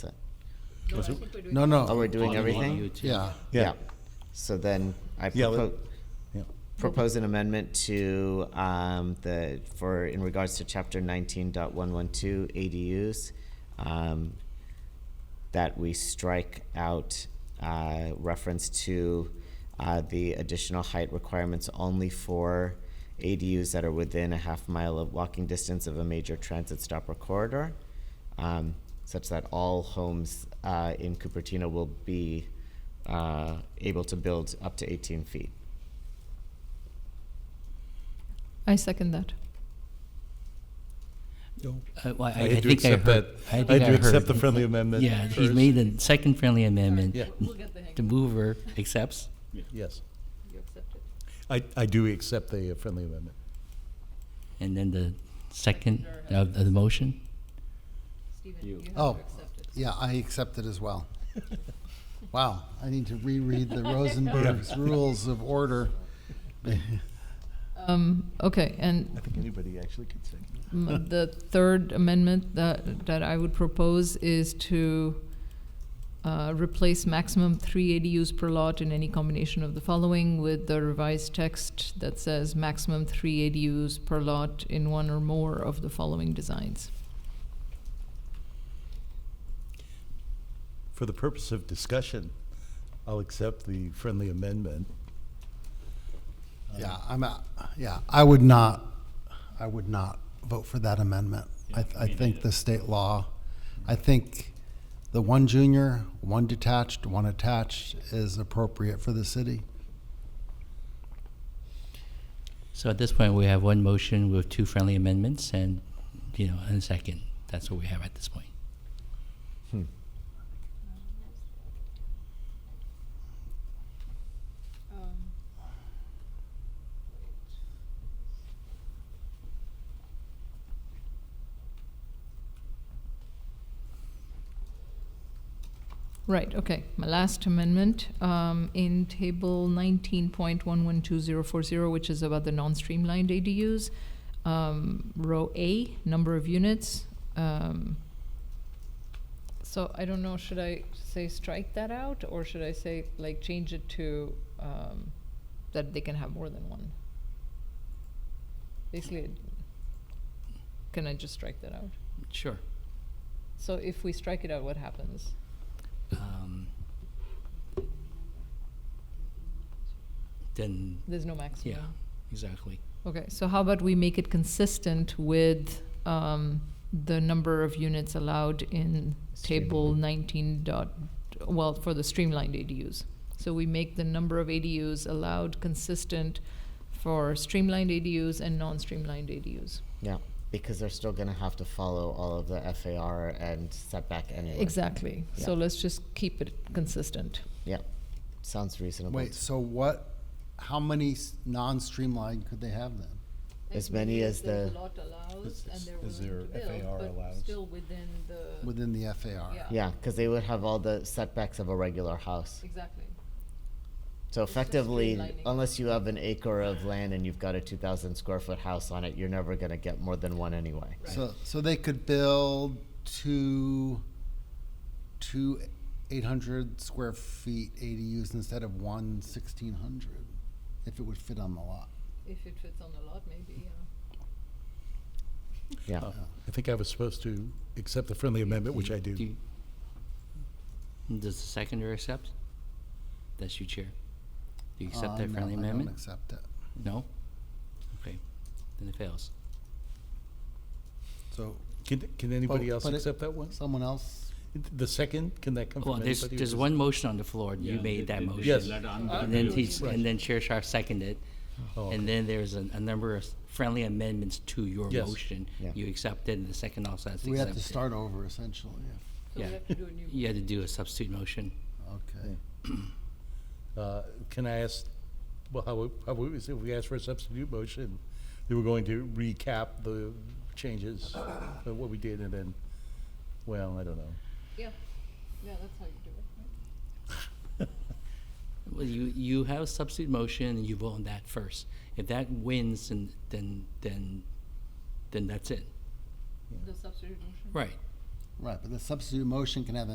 Was it? No, no. Oh, we're doing On- on everything? YouTube. Yeah, Yeah, So then I Yeah, let- propose, yeah. propose an amendment to, um, the, for, in regards to chapter nineteen dot one one two ADUs, um, that we strike out, uh, reference to, uh, the additional height requirements only for ADUs that are within a half mile of walking distance of a major transit stop or corridor, um, such that all homes, uh, in Cupertino will be, uh, able to build up to eighteen feet. I second that. Uh, well, I, I I had to think I accept that. heard. I think had to accept heard- the friendly amendment. Yeah, he's first. made the second friendly amendment. Yeah. We'll get the hang The mover accepts. Yes, You accept it. I, I do accept the uh, friendly amendment. And then the second of of the motion? Stephen, you Oh. have to accept it. yeah, I accept it as well. Wow, I need to reread the Rosenberg's Rules of Order. Um, okay, and I think anybody actually could second. m- the third amendment that, that I would propose is to uh, replace maximum three ADUs per lot in any combination of the following with the revised text that says maximum three ADUs per lot in one or more of the following designs. For the purpose of discussion, I'll accept the friendly amendment. Yeah, I'm, a- yeah, I would not, I would not vote for that amendment. I, I think the state law, I think the one junior, one detached, one attached is appropriate for the city. So at this point, we have one motion with two friendly amendments and, you know, and a second. That's what we have at this point. Um, Right, okay. My last amendment, um, in table nineteen point one one two zero four zero, which is about the non-streamlined ADUs, um, row A, number of units, um, so I don't know, should I say strike that out, or should I say, like, change it to, um, that they can have more than one? Basically, can I just strike that out? Sure. So if we strike it out, what happens? Um, Then, There's no maximum? yeah, exactly. Okay, so how about we make it consistent with um, the number of units allowed in table 19 dot, well, for the streamlined ADUs? So we make the number of ADUs allowed consistent for streamlined ADUs and non-streamlined ADUs. Yeah, because they're still gonna have to follow all of the FAR and setback anyway. Exactly, so Yeah. let's just keep it consistent. Yeah, sounds reasonable. Wait, so what, how many s- non-streamlined could they have then? As many as the- lot allows As- as- as their FAR allows. within the, within the FAR? Yeah, because they would have all the setbacks of a regular house. exactly. So just effectively, streamlining. unless you have an acre of land and you've got a two thousand square foot house on it, you're never gonna get more than one anyway. So, so they could build two, two eight hundred square feet ADUs instead of one sixteen hundred, if it would fit on the lot. If it fits on a lot, maybe, yeah. Yeah, Uh, I think I was supposed to accept the friendly amendment, which I do. you- Does the seconder accept? That's you, Chair. Do you Uh, accept that no, friendly I don't amendment? accept it. No? Okay, then it fails. So Can, can anybody Oh, But- else but it- accept that one? someone else, The second, can that come from Well, anybody? there's, or there's does- one motion on the floor, and you Yeah, made they- that they- they motion. Yes. let on- And then Right. he's, and then Chair Sharp seconded, Oh, okay. and then there's a, a number of friendly amendments to your Yes. motion. Yeah. You accepted, and the second also has we have to accepted. start over essentially, if, So we Yeah. have to do a new You had to do a substitute motion. okay. Uh, Can I ask, well, how, we- how, we- if we asked for a substitute motion, they were going to recap the changes, of what we did, and then, well, I don't know. Yeah, yeah, that's how you do it, right? Well, you, you have a substitute motion, and you vote on that first. If that wins, then, then, then, then that's it. The substitute motion? Right. Right, but the substitute motion can have